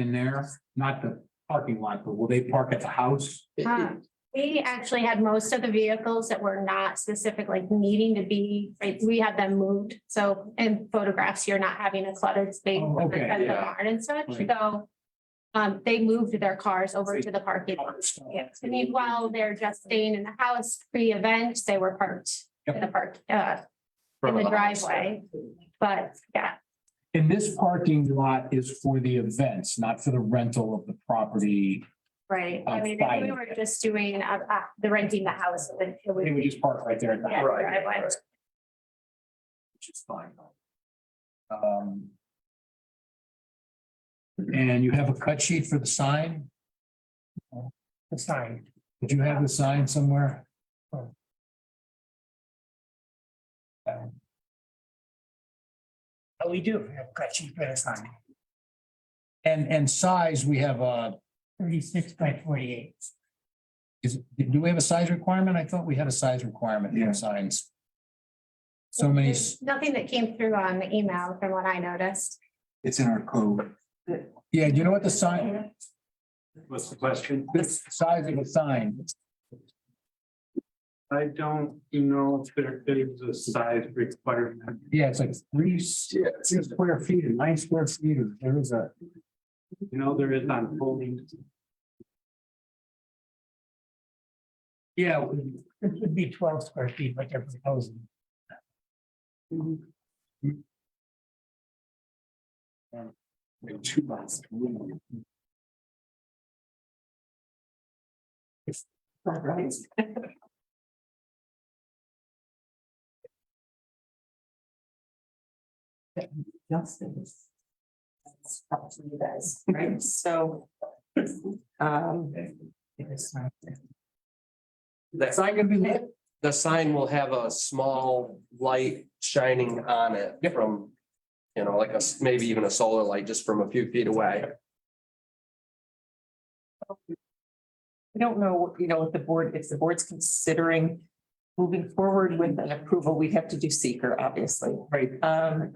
in there, not the parking lot, but will they park at the house? Huh. We actually had most of the vehicles that were not specifically needing to be, right, we had them moved, so in photographs, you're not having a cluttered space. Oh, okay, at the yeah. barn And such, Right. so, um, they moved their cars over to the parking lot. Yeah, Yes. and meanwhile, they're just staying in the house pre-event, they were parked in the park, uh, in the driveway. But, yeah, And this parking lot is for the events, not for the rental of the property. right, I On mean, if we Friday. were just doing, uh, uh, the renting the house, then it would. They would just park right there at the Yeah, house. driveway. Which is fine. Um. And you have a cut sheet for the sign? The sign. Did you have the sign somewhere? Oh, We do have cut sheet for the sign, And, and size, we have uh, a, thirty-six by forty-eight. is, do we have a size requirement? I thought we had a size requirement Yeah. for signs. So many, s- There's Nothing that came through on the email from what I noticed. It's in our code. yeah, you know what the sign, What's the question? this size of a sign, I don't know if there is a size requirement. yeah, it's like three, s- Yeah. six square feet or nine square feet, or there is a. You know, there is on holding. Yeah, This would be twelve square feet, what they're proposing. Two months. Right. Justin's. That's up to you guys, right, so. Um. That's not gonna be lit. the sign will have a small light shining on it from. You know, like a, s- maybe even a solar light just from a few feet away. I don't know, you know, if the board, if the board's considering moving forward with an approval, we'd have to do seeker, obviously. Right. Um,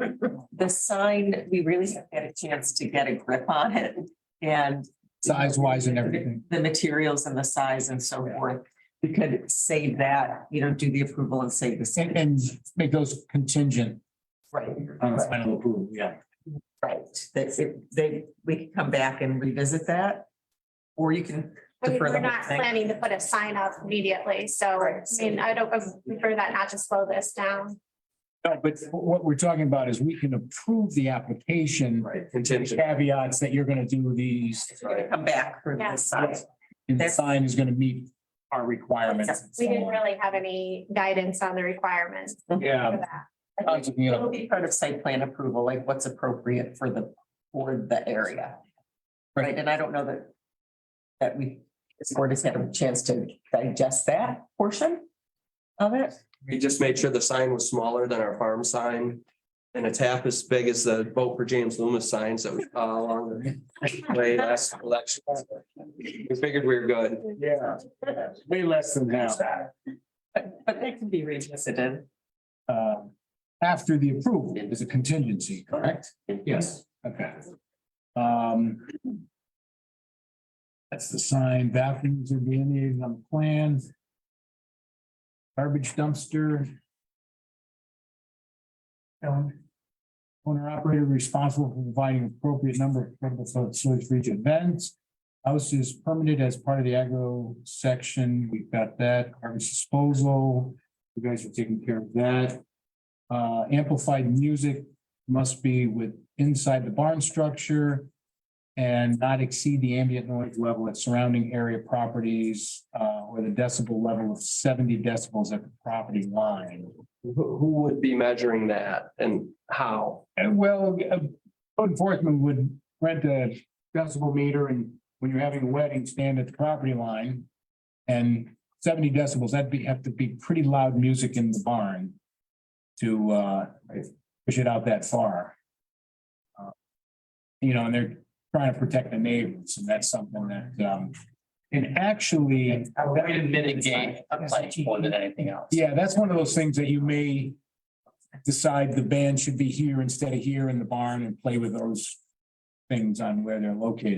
the sign, we really haven't had a chance to get a grip on it and. Size wise and everything. The materials and the size and so forth. We could save that, you know, do the approval and save the. And, and make those contingent Right. on the final approval, yeah. Right, that's it, they, we can come back and revisit that. Or you can, I mean, Defer the we're whole not thing. planning to put a sign up immediately, so I Right. mean, I don't, I prefer that not to slow this down. No, but what we're talking about is we can approve the application. Right. with Contingent. Caveats that you're gonna do these, you're gonna come back for Yeah. this side. and the That's- sign is gonna meet our requirements. and We didn't so on. really have any guidance on the requirements for Yeah. that. I was looking it It'll up. be part of site plan approval, like what's appropriate for the, for the area. Right, and I don't know that. That we, this board has had a chance to digest that portion of it. We just made sure the sign was smaller than our farm sign. And it's half as big as the vote for James Loomis signs that was uh, along the way last election. We figured we were good. Yeah, way less than half. But, but that can be revisited. Um, after the approval, there's a contingency, correct? Yes, okay. Um. That's the sign, bathrooms are being needed on the plan. Garbage dumpster. Owner operator responsible for providing appropriate number of portable facilities for each event. House is permitted as part of the agro section, we've got that, garbage disposal, you guys are taking care of that. Uh, amplified music must be with inside the barn structure. And not exceed the ambient noise level at surrounding area properties, uh, or the decibel level of seventy decibels at the property line. Who, who would be measuring that and how? And well, uh, code enforcement would rent a decibel meter and when you're having a wedding, stand at the property line. And seventy decibels, that'd be, have to be pretty loud music in the barn. To uh, push it out that far. Uh, You know, and they're trying to protect the neighbors and that's something that um, and actually. Way to mitigate a pledge more than anything else. Yeah, that's one of those things that you may decide the band should be here instead of here in the barn and play with those things on where they're located.